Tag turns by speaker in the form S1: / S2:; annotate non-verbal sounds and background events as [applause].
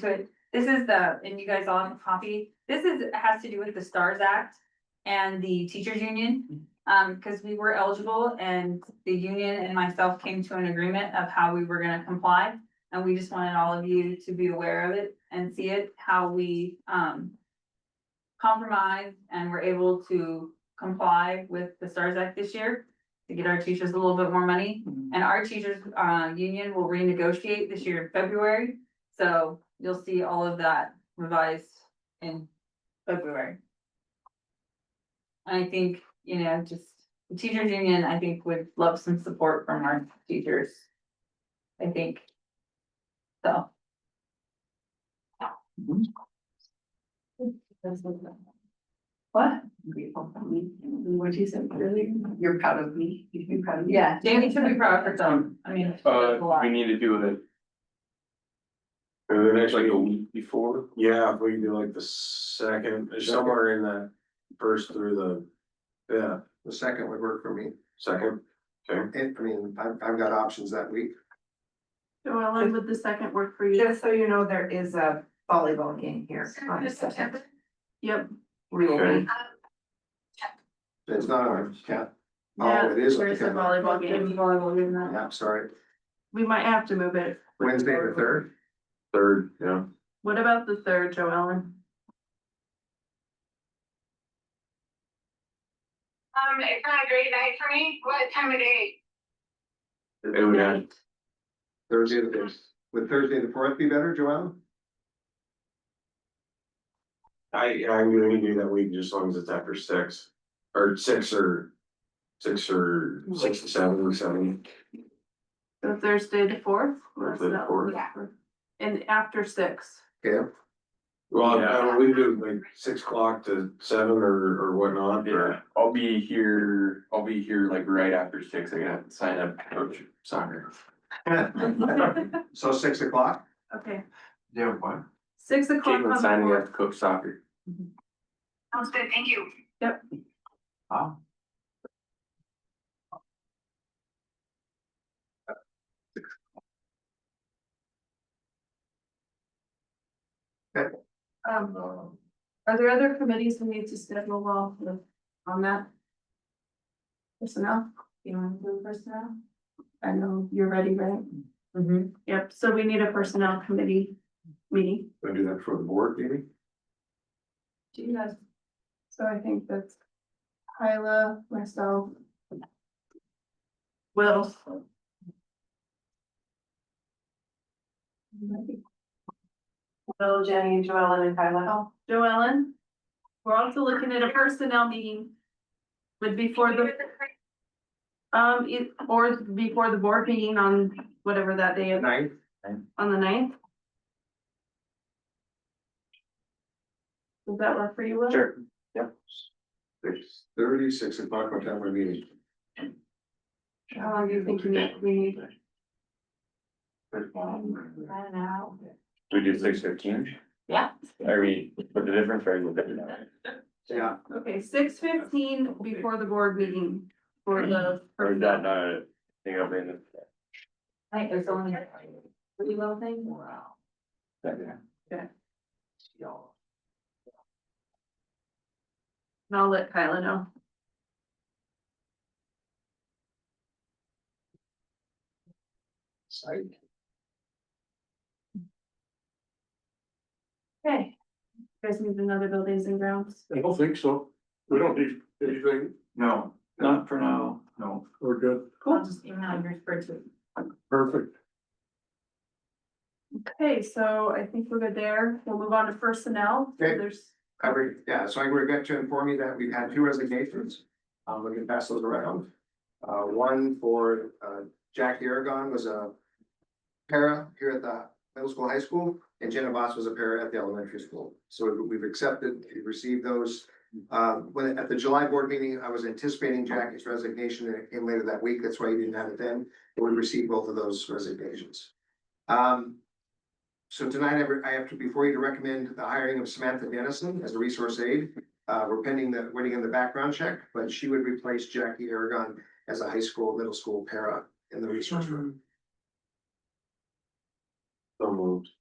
S1: to it. This is the, and you guys all have a copy, this is, has to do with the STARS Act and the teachers union. Um, because we were eligible and the union and myself came to an agreement of how we were gonna comply. And we just wanted all of you to be aware of it and see it, how we, um, compromised and were able to comply with the STARS Act this year to get our teachers a little bit more money. And our teachers, uh, union will renegotiate this year in February, so you'll see all of that revised in February. I think, you know, just the teachers union, I think would love some support from our teachers. I think. So.
S2: That's what I'm
S1: What?
S2: grateful for me. And What you said earlier, you're proud of me, you should be proud of me.
S1: Yeah, Jamie should be proud of herself. I mean. she
S3: Uh,
S1: does a lot.
S3: we need to do it.
S4: And then actually,
S3: Like a week before?
S4: yeah, if we can do like the second, somewhere in the first through the, yeah,
S5: The second would work for me.
S4: second. Okay,
S5: It, I mean, I've, I've got options that week.
S6: So Ellen, would the second work for you?
S2: Just so you know, there is a volleyball game here on the second.
S6: Yep.
S2: We will be,
S5: It's not on, yeah.
S6: Yeah,
S5: Oh, it is. on the
S6: There's the
S5: calendar.
S3: Uh,
S6: volleyball game.
S1: Volleyball, isn't that?
S5: Yeah, sorry.
S6: We might have to move it.
S5: Wednesday the third,
S4: third, yeah,
S6: What about the third, Joellen?
S7: Um, it's not a great night for me. What time of day?
S4: it would add,
S5: Thursday the fifth. Would Thursday the fourth be better, Joanna?
S4: I, I'm gonna do that week just as long as it's after six, or six or. Six or six to seven or seven,
S6: So Thursday the fourth? Or is
S4: Thursday the
S6: that-
S4: fourth.
S6: And after six,
S5: Okay,
S4: well, I don't know, we do like six o'clock to seven or, or whatnot,
S3: Yeah,
S4: or.
S3: I'll be here, I'll be here like right after six, I gotta have to sign up coach soccer.
S5: [laughs] so six o'clock?
S6: okay,
S4: Yeah, what?
S6: six o'clock
S3: Caitlin
S6: on the
S3: signing up
S6: fourth.
S3: to coach soccer.
S7: Mm-hmm. Sounds good. Thank you.
S6: Um, are there other committees we need to schedule while the- on that? Personnel,
S1: You want to do personnel?
S6: I know you're ready, right?
S1: Mm-hmm.
S6: Yep, so we need a personnel committee meeting.
S4: I do that for the board, maybe?
S6: Do you guys? So I think that's Hyla, myself. Will.
S2: Will, Jenny, and Joellen, and Kyla.
S6: Oh, Joellen, we're also looking at a personnel meeting. Would be for the, um, it- or before the board meeting on whatever that day is,
S5: Ninth?
S6: on the ninth. Does that work for you, Will?
S3: Sure.
S5: Six thirty, six o'clock, what time are we meeting?
S6: How long do you think you need, we need?
S1: I don't know.
S3: We do six fifteen?
S6: Yeah.
S3: Are we, but the difference are you looking at?
S5: Yeah,
S6: Okay, six fifteen before the board meeting for the.
S3: Or is that not, a thing I'll be in the.
S1: I think there's only a pretty little thing.
S6: And I'll let Kyla know.
S5: Sorry.
S6: Okay. You Guys need another buildings and grounds.
S4: I don't think so, we don't need anything,
S3: No, not for now, no.
S4: we're good,
S1: I'll just email your spreadsheet.
S4: perfect.
S6: Okay, so I think we're good there. We'll move on to personnel.
S5: Okay.
S6: There's,
S5: I re yeah, so I regret to inform you that we've had two resignations. Um, we can pass those around. Uh, one for, uh, Jackie Aragon was a para here at the middle school, high school, and Jenna Voss was a para at the elementary school. So we- we've accepted, we've received those. Uh, when, at the July board meeting, I was anticipating Jackie's resignation, and it came later that week, that's why you didn't have it then, but we received both of those resignations. Um, so tonight, I re- I have to, before you to recommend the hiring of Samantha Dennison as a resource aide. Uh, we're pending the, waiting on the background check, but she would replace Jackie Aragon as a high school, middle school para in the resource room.
S4: So moved.